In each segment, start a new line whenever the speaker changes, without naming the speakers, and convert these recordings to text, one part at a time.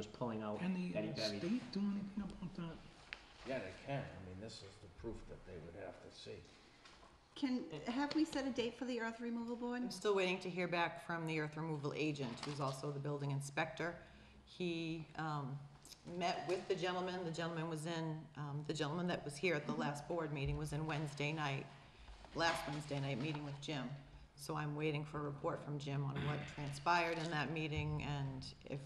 was pulling out
Can the
that he
uh, state
buried.
do anything about that?
Yeah, they can, I mean, this is the proof that they would have to see.
Can, have we set a date for the earth removal board?
I'm still waiting to hear back from the earth removal agent, who's also the building inspector. He um, met with the gentleman, the gentleman was in, um, the gentleman that was here at the last board meeting was in Wednesday night, last Wednesday night, meeting with Jim. So I'm waiting for a report from Jim on what transpired in that meeting and if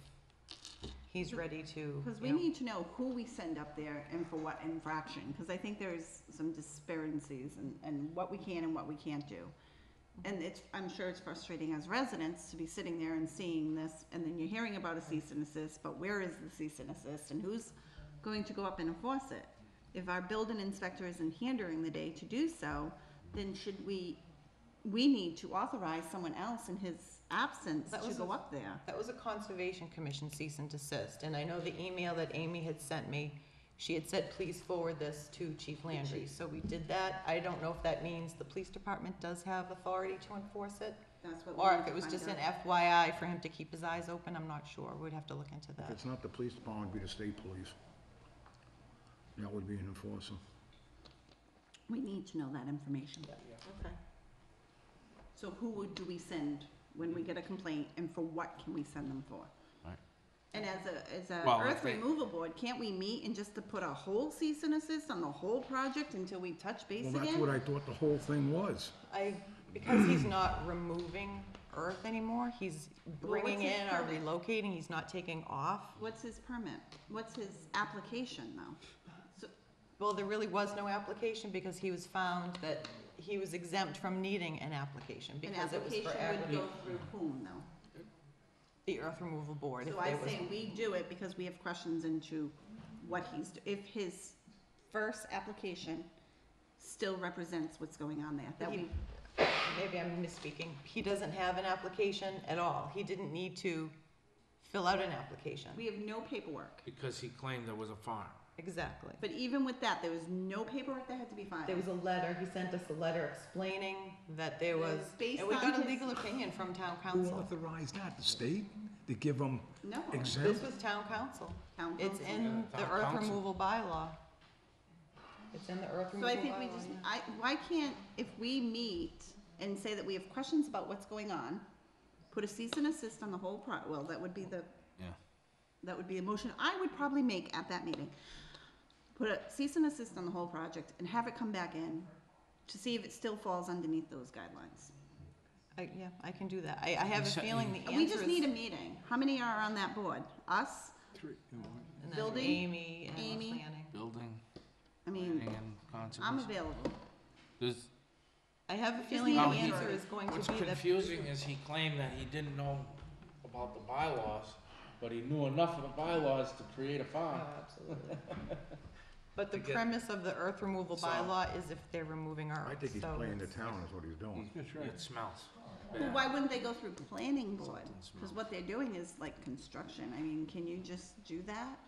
he's ready to,
Because
you
we
know,
need to know who we send up there and for what infraction, because I think there's some disparities and, and what we can and what we can't do. And it's, I'm sure it's frustrating as residents to be sitting there and seeing this, and then you're hearing about a cease and assist, but where is the cease and assist, and who's going to go up and enforce it? If our building inspector isn't here during the day to do so, then should we, we need to authorize someone else in his absence
That
to
was
go
a-
up there.
That was a Conservation Commission cease and desist, and I know the email that Amy had sent me, she had said, please forward this to Chief Landry, so we did that. I don't know if that means the police department does have authority to enforce it,
That's what we
or
need
if
to
it was
find
just
out.
an FYI for him to keep his eyes open, I'm not sure, we'd have to look into
If
that.
it's not the police department, it'd be the state police. That would be an enforcer.
We need to know that information.
Okay.
So who would, do we send when we get a complaint and for what can we send them for?
Right.
And as a, as a
Well,
earth
if they-
removal board, can't we meet and just to put a whole cease and assist on the whole project until we touch base
Well,
again?
that's what I thought the whole thing was.
I, because he's not removing earth anymore, he's
what's
bringing
his
in or
permit?
relocating, he's not taking off.
What's his permit? What's his application though? So,
Well, there really was no application because he was found that he was exempt from needing an application
an
because it was
application
for
would
agri-
go through whom though?
the earth removal board. if
So I
there was-
say we do it because we have questions into what he's, do- if his first application still represents what's going on there, that
He-
we
Maybe I'm misspeaking. He doesn't have an application at all. He didn't need to fill out an application.
We have no paperwork.
Because he claimed there was a farm.
Exactly.
But even with that, there was no paperwork that had to be filed.
There was a letter, he sent us a letter explaining that there was,
Based
and we
on
got a
his-
legal opinion from town
Who
council.
authorized that? The state? To give them
No.
This
exempt?
was town council.
Town
It's
council.
in the
Town
earth
council.
removal bylaw. It's in the earth
So
removal
I
bylaw.
think we just,
yeah.
I, why can't, if we meet and say that we have questions about what's going on, put a cease and assist on the whole pro, well, that would be the,
Yeah.
that would be a motion I would probably make at that meeting. Put a cease and assist on the whole project and have it come back in to see if it still falls underneath those guidelines.
I, yeah, I can do that. I, I have a
Except-
feeling the answer
And we just
is-
need a meeting. How many are on that board? Us?
and then
building,
Amy and
Amy.
planning.
Building
I mean,
and
I'm
conservation.
available.
There's-
I have a
Just
feeling
need
the
an
answer
answer.
is going
What's
to be that
confusing is he claimed that he didn't know about the bylaws, but he knew enough of the bylaws to create a
Oh,
farm.
absolutely. But the
To get-
premise of the earth removal
So-
bylaw is if they're removing earth,
I think he's
so
playing the
it's-
town is what he's doing.
It smells.
Well, why wouldn't they go through planning board?
Something's
Because
wrong.
what they're doing is like construction, I mean, can you just do that?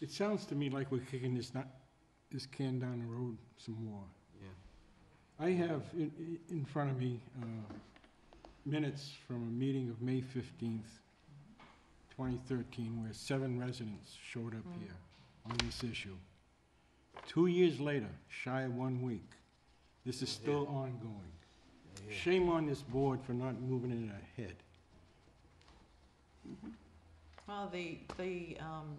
It sounds to me like we're kicking this not, this can down the road some more.
Yeah.
I have in, i- in front of me, uh, minutes from a meeting of May fifteenth, twenty thirteen, where seven residents showed up
Mm.
here on this issue. Two years later, shy of one week, this is still ongoing. Shame on this board for not moving it ahead.
Well, the, the, um,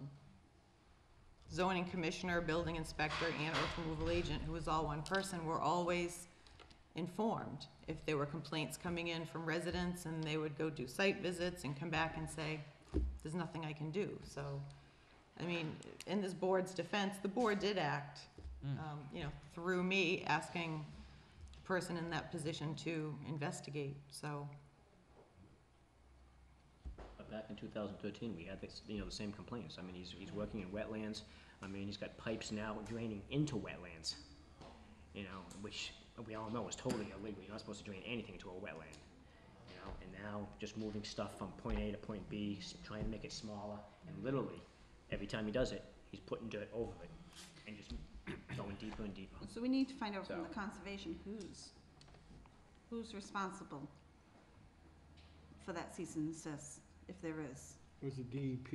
zoning commissioner, building inspector, and earth removal agent, who was all one person, were always informed. If there were complaints coming in from residents, and they would go do site visits and come back and say, there's nothing I can do, so, I mean, in this board's defense, the board did act,
Mm.
um, you know, through me, asking the person in that position to investigate, so.
But back in 2013, we had this, you know, the same complaints. I mean, he's, he's working in wetlands. I mean, he's got pipes now draining into wetlands, you know, which we all know is totally illegal. You're not supposed to drain anything into a wetland, you know. And now just moving stuff from point A to point B, s- trying to make it smaller, and literally every time he does it, he's putting dirt over it and just going deeper and deeper.
So we need to find out from the
So-
conservation who's, who's responsible for that cease and desist, if there is.
was the E DEP.